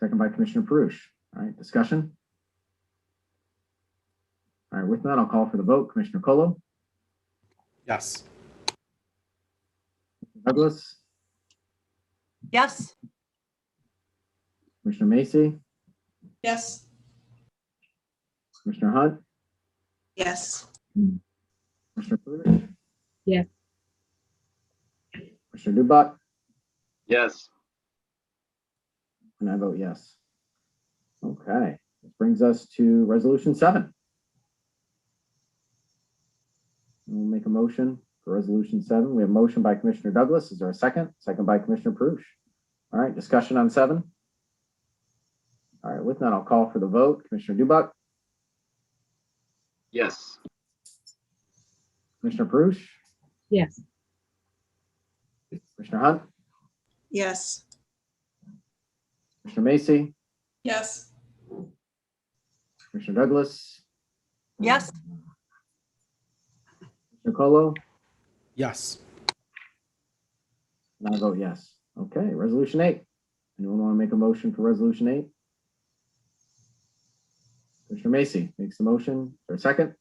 Second by Commissioner Perush. All right, discussion? All right, with that, I'll call for the vote. Commissioner Colo, Yes. Douglas, Yes. Commissioner Macy, Yes. Commissioner Hunt, Yes. Commissioner Perush. Yes. Commissioner Dubak, Yes. and I vote yes. Okay, this brings us to resolution seven. We'll make a motion for resolution seven. We have a motion by Commissioner Douglas. Is there a second? Second by Commissioner Perush. All right, discussion on seven. All right, with that, I'll call for the vote. Commissioner Dubak, Yes. Commissioner Perush, Yes. Commissioner Hunt, Yes. Commissioner Macy, Yes. Commissioner Douglas, Yes. Commissioner Colo, Yes. and I vote yes. Okay, resolution eight. Anyone want to make a motion for resolution eight? Commissioner Macy makes the motion for a second.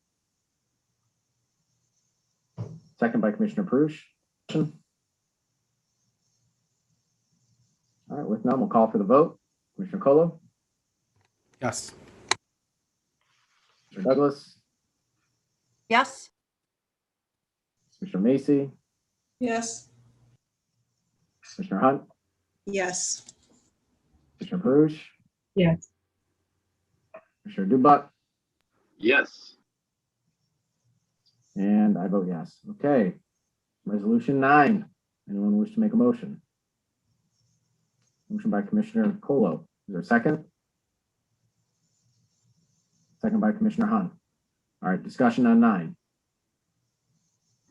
Second by Commissioner Perush. All right, with none, we'll call for the vote. Commissioner Colo, Yes. Commissioner Douglas, Yes. Commissioner Macy, Yes. Commissioner Hunt, Yes. Commissioner Perush, Yes. Commissioner Dubak, Yes. And I vote yes. Okay. Resolution nine. Anyone wish to make a motion? Motion by Commissioner Colo. Is there a second? Second by Commissioner Hahn. All right, discussion on nine.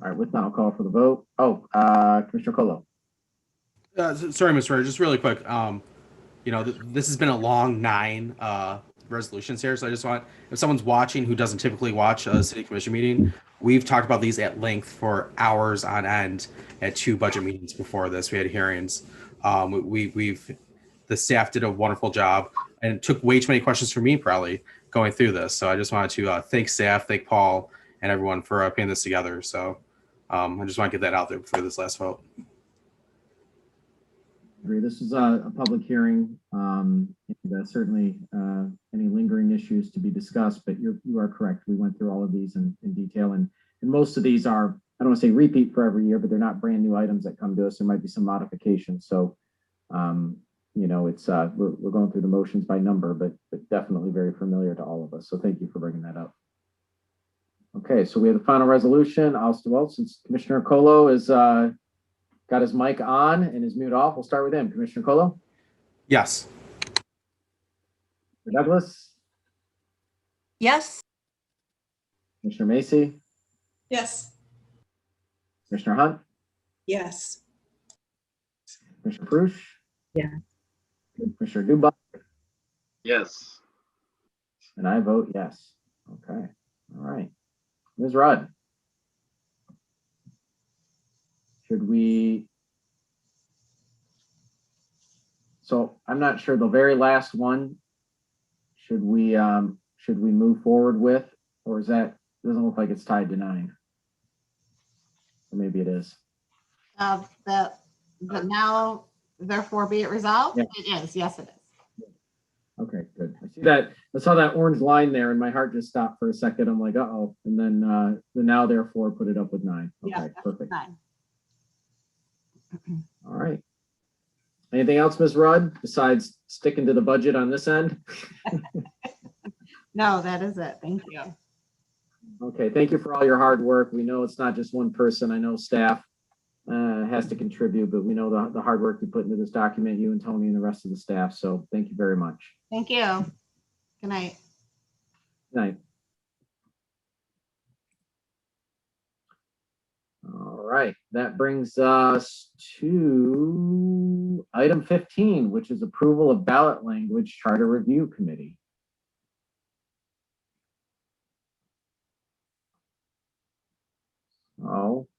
All right, with that, I'll call for the vote. Oh, uh, Commissioner Colo. Uh, s- sorry, Mr. Mayor, just really quick. Um, you know, th- this has been a long nine uh, resolutions here, so I just want if someone's watching who doesn't typically watch a city commission meeting, we've talked about these at length for hours on end at two budget meetings before this. We had hearings. Um, we- we we've the staff did a wonderful job and it took way too many questions for me probably going through this. So I just wanted to uh, thank staff, thank Paul, and everyone for uh, putting this together. So um, I just want to get that out there before this last vote. Agree. This is a, a public hearing. Um, and, uh, certainly, uh, any lingering issues to be discussed, but you're, you are correct. We went through all of these in, in detail and, and most of these are, I don't want to say repeat for every year, but they're not brand new items that come to us. There might be some modifications. So, um, you know, it's, uh, we're, we're going through the motions by number, but, but definitely very familiar to all of us. So thank you for bringing that up. Okay, so we have the final resolution. I'll, well, since Commissioner Colo is, uh, got his mic on and his mute off. We'll start with him. Commissioner Colo, Yes. Commissioner Douglas, Yes. Commissioner Macy, Yes. Commissioner Hunt, Yes. Commissioner Perush. Yeah. Commissioner Dubak, Yes. and I vote yes. Okay, all right. Ms. Rudd. Should we? So I'm not sure, the very last one, should we, um, should we move forward with, or is that, doesn't look like it's tied to nine? Or maybe it is. of the, the now therefore be it resolved? Yeah. It is, yes, it is. Okay, good. I see that, I saw that orange line there and my heart just stopped for a second. I'm like, uh-oh. And then, uh, the now therefore put it up with nine. Yeah, Okay, perfect. Nine. All right. Anything else, Ms. Rudd, besides sticking to the budget on this end? No, that is it. Thank you. Okay, thank you for all your hard work. We know it's not just one person. I know staff uh, has to contribute, but we know the, the hard work you put into this document, you and Tony and the rest of the staff. So thank you very much. Thank you. Good night. Night. All right, that brings us to item fifteen, which is approval of ballot language charter review committee. Oh,